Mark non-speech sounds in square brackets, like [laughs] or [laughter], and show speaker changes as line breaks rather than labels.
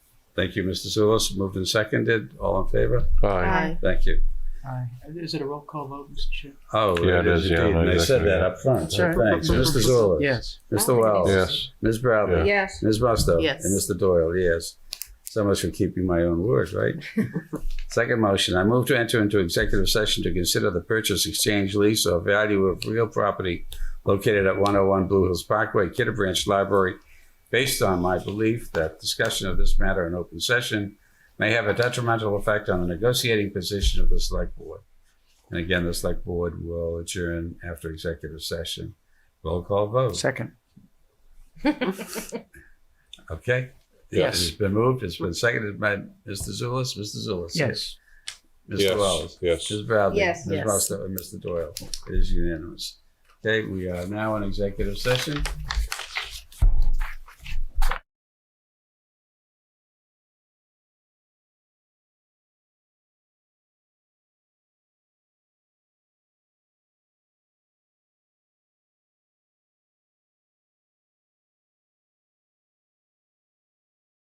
Thank you, Mr. Zulus. Moved and seconded. All in favor?
Aye.
Thank you.
Aye. Is it a roll call vote, Mr. Chair?
Oh,
Yeah, it is, yeah,
indeed. And I said
exactly,
that
yeah.
up front. So
Sure.
thanks. Mr. Zulus.
Yes.
Mr. Wells.
Yes.
Ms. Bradley.
Yes.
Ms. Musto.
Yes.
And Mr. Doyle, yes. So much for keeping my own word,
[laughs]
right? Second motion, I move to enter into executive session to consider the purchase, exchange, lease, or value of real property located at one oh one Blue Hills Parkway, Kidder Branch Library, based on my belief that discussion of this matter in open session may have a detrimental effect on the negotiating position of the select board. And again, the select board will adjourn after executive session. Roll call vote.
Second.
Okay.
Yes.
It's been moved. It's been seconded by Mr. Zulus. Mr. Zulus.
Yes.
Mr. Wells.
Yes.
Ms. Bradley.
Yes.
Ms.
Yes.
Musto and Mr. Doyle. It is unanimous. Okay, we are now in executive session.